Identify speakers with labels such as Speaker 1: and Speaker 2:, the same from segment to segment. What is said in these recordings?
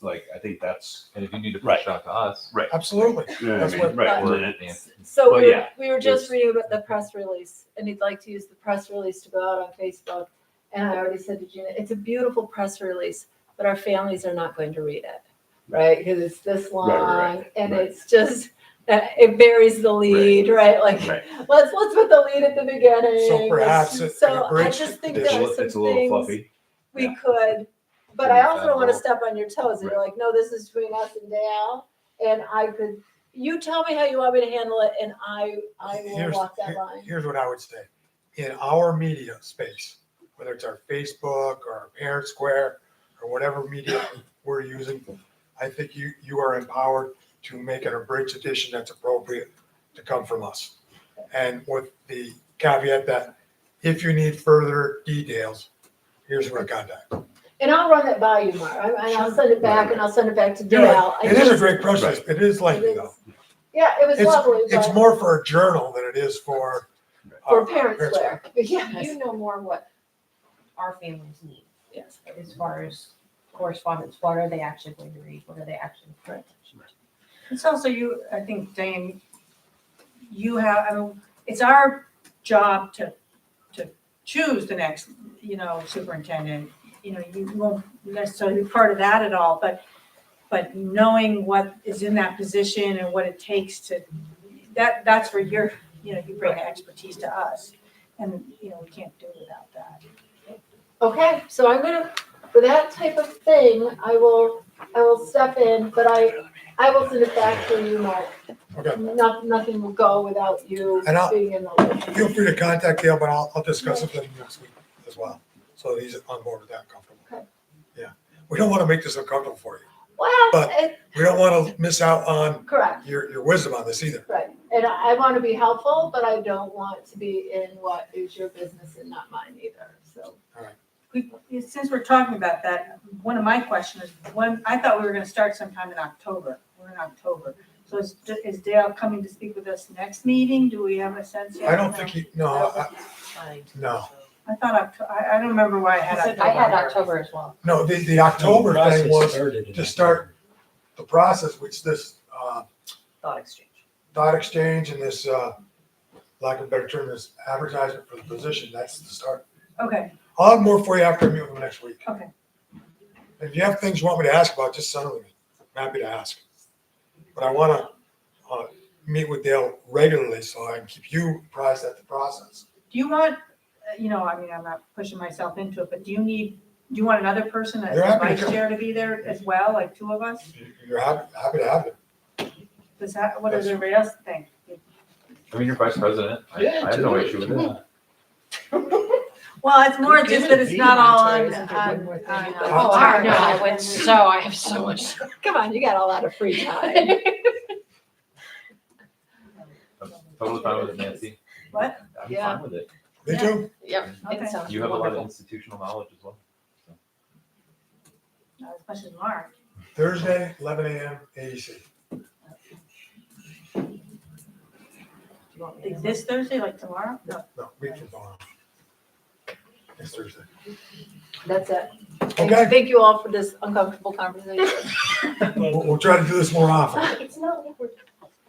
Speaker 1: like, I think that's,
Speaker 2: And if you need to
Speaker 1: Right.
Speaker 2: push out to us,
Speaker 3: Absolutely.
Speaker 1: you know what
Speaker 3: That's
Speaker 1: I mean?
Speaker 3: what-
Speaker 1: Right.
Speaker 2: But-
Speaker 1: we're in it.
Speaker 2: Yeah.
Speaker 4: So
Speaker 1: But
Speaker 4: we, were
Speaker 1: yeah,
Speaker 4: we were just
Speaker 1: it's-
Speaker 4: reading about the press release, and he'd like to use the press release to go out on Facebook. And I already said to Gina, it's a beautiful press release, but our families are not going to read it, right? Because it's this
Speaker 1: Right, right,
Speaker 4: long, and
Speaker 1: right.
Speaker 4: it's just, uh, it buries the lead, right? Like,
Speaker 1: Right.
Speaker 4: let's, let's put the lead at the beginning.
Speaker 3: So perhaps
Speaker 4: Let's-
Speaker 3: it- an
Speaker 4: So I
Speaker 3: abridged
Speaker 4: just think
Speaker 1: It's a
Speaker 4: there
Speaker 1: little,
Speaker 4: are
Speaker 1: it's a
Speaker 4: some
Speaker 1: little
Speaker 4: things
Speaker 1: fluffy.
Speaker 4: we
Speaker 1: Yeah.
Speaker 4: could, but I
Speaker 2: Yeah,
Speaker 4: also don't want to
Speaker 2: well-
Speaker 4: step on your toes. And you're like, no, this is between us and Dale, and I could, you tell me how you want me to handle it, and I, I will
Speaker 3: Here's-
Speaker 4: walk that
Speaker 3: here-
Speaker 4: line.
Speaker 3: Here's what I would say. In our media space, whether it's our Facebook or our Parent Square or whatever media we're using, I think you, you are empowered to make an abridged edition that's appropriate to come from us. And with the caveat that if you need further details, here's where to contact.
Speaker 4: And I'll run that by you, Mark. I- I- I'll send it back, and I'll send it back to
Speaker 3: You're
Speaker 4: Dale.
Speaker 3: right.
Speaker 4: I
Speaker 3: It is a
Speaker 4: just-
Speaker 3: great process. It is
Speaker 4: it
Speaker 3: lengthy
Speaker 4: is-
Speaker 3: though.
Speaker 4: Yeah, it was
Speaker 3: It's-
Speaker 4: lovely,
Speaker 3: It's
Speaker 4: but
Speaker 3: more for a journal than it is for. uh,
Speaker 4: for parents square.
Speaker 5: You
Speaker 4: Yes,
Speaker 5: know more what our families need
Speaker 4: yes.
Speaker 5: as far as correspondence. What are they actually going to read? What are they actually? paying attention to?
Speaker 6: It's also you, I think, Diane, you have, I mean, it's our job to, to choose the next, you know, superintendent. You know, you won't necessarily be part of that at all, but, but knowing what is in that position and what it takes to, that, that's where you're, you know, you bring the expertise to us. And, you know, we can't do without that.
Speaker 4: Okay, so I'm gonna, for that type of thing, I will, I will step in, but I, I will send it back to you, Mark.
Speaker 3: Okay.
Speaker 4: Not, nothing will go without you
Speaker 3: And I'll-
Speaker 4: being in the loop.
Speaker 3: Feel free to contact Gail, but I'll, I'll discuss it with him next week as well. So that he's on board with that
Speaker 4: Okay.
Speaker 3: comfortable. Yeah, we don't want to make this uncomfortable for you.
Speaker 4: Well,
Speaker 3: But-
Speaker 4: it-
Speaker 3: We don't want to miss out on
Speaker 4: correct,
Speaker 3: your, your wisdom on this either.
Speaker 4: right. And I I wanna be helpful, but I don't want to be in what is your business and not mine either, so.
Speaker 6: We, since we're talking about that, one of my questions, one, I thought we were gonna start sometime in October, we're in October. So is, is Dale coming to speak with us next meeting, do we have a sense yet?
Speaker 3: I don't think he, no, I, no,
Speaker 6: I thought, Oct- I, I don't remember why I had October.
Speaker 5: I had October as well.
Speaker 3: no, the, the October thing was to start the process, which this, uh,
Speaker 7: Thought exchange.
Speaker 3: thought exchange and this, uh, lack of a better term, this advertisement for the position, that's the start.
Speaker 6: Okay,
Speaker 3: I'll have more for you after I meet with him next week.
Speaker 6: Okay.
Speaker 3: If you have things you want me to ask about, just send them to me. I'm happy to ask. But I wanna, uh, meet with Dale regularly so I can keep you apprised at the process.
Speaker 6: do you want, uh, you know, I mean, I'm not pushing myself into it, but do you need, do you want another person, a
Speaker 3: You're happy to
Speaker 6: vice
Speaker 3: come.
Speaker 6: chair to be there as well, like two of us?
Speaker 3: You- You're happy, happy to have it.
Speaker 6: Does that, what does everybody else think?
Speaker 2: I mean, you're vice president. I,
Speaker 7: Yeah,
Speaker 2: I have no
Speaker 7: do it,
Speaker 2: issue with
Speaker 7: do
Speaker 2: that.
Speaker 6: Well, it's more just that it's not all on,
Speaker 7: Isn't there one
Speaker 6: on,
Speaker 7: more thing
Speaker 6: on-
Speaker 7: you'd like
Speaker 3: Oh,
Speaker 5: Oh,
Speaker 3: to
Speaker 4: I
Speaker 5: I
Speaker 4: know.
Speaker 5: know, I went so, I have so much.
Speaker 4: Come on, you got a lot of free time.
Speaker 2: I'm totally fine with it, Nancy.
Speaker 6: What?
Speaker 2: I'm
Speaker 4: Yeah.
Speaker 2: fine with it.
Speaker 3: Me
Speaker 6: Yeah.
Speaker 3: too.
Speaker 7: Yep.
Speaker 6: Okay.
Speaker 7: it sounds
Speaker 2: You have a lot of
Speaker 7: wonderful.
Speaker 2: institutional knowledge as well.
Speaker 6: not Uh, as much as Mark.
Speaker 3: Thursday, eleven AM, AEC.
Speaker 6: Like This Thursday, like tomorrow? No.
Speaker 3: No, week from tomorrow. It's Thursday.
Speaker 4: That's it. Thank-
Speaker 3: Okay,
Speaker 4: Thank you all for this uncomfortable conversation.
Speaker 3: we'll, we'll try to do this more often.
Speaker 5: It's not like we're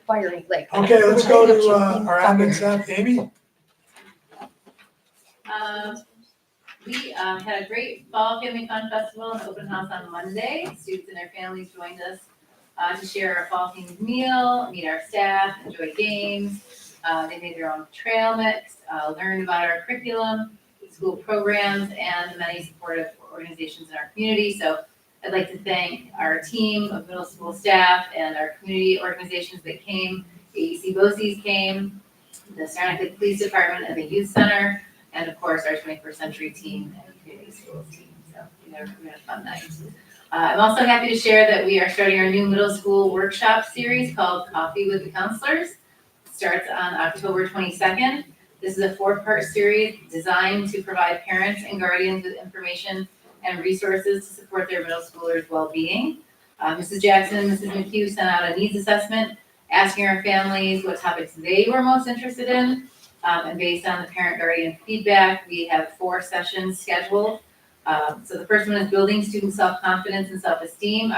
Speaker 5: firing like.
Speaker 3: Okay, let's go to, uh, our admin staff, Amy?
Speaker 8: Um, we, um, had a great fall family fun festival and open house on Monday. Students and their families joined us, uh, to share a fall themed meal, meet our staff, enjoy games. Uh, they made their own trail mix, uh, learned about our curriculum, school programs, and the many supportive organizations in our community. So I'd like to thank our team of middle school staff and our community organizations that came. AEC BOCES came, the Saranac Police Department and the Youth Center and of course, our twenty-first century team and community schools team, so you know, we had a fun night. Uh, I'm also happy to share that we are starting our new middle school workshop series called Coffee with the Counselors. It Starts on October twenty-second. This is a four-part series designed to provide parents and guardians with information and resources to support their middle schoolers' well-being. Uh, Mrs. Jackson and Mrs. McHugh sent out a needs assessment, asking our families what topics they were most interested in, um, and based on the parent guardian feedback, we have four sessions scheduled. Um, so the first one is building student self-confidence and self-esteem.